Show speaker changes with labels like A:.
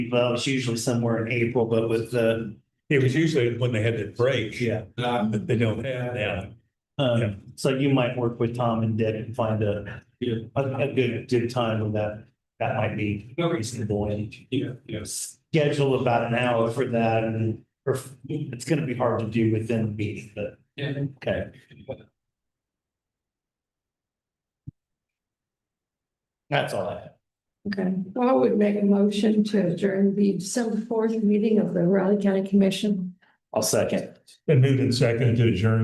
A: Well, it's usually somewhere in April, but with the,
B: It was usually when they had that break.
A: yeah.
B: That they don't have now. Yeah.
A: Um, so you might work with Tom and Dick and find a, a, a good, good time when that, that might be reasonable and
C: Yeah, yes.
A: schedule about an hour for that and, or it's gonna be hard to do within the meeting, but,
C: Yeah.
A: okay. That's all I have.
D: Okay, I would make a motion to adjourn the December fourth meeting of the Raleigh County Commission.
A: I'll second.
B: And moved and seconded to adjourn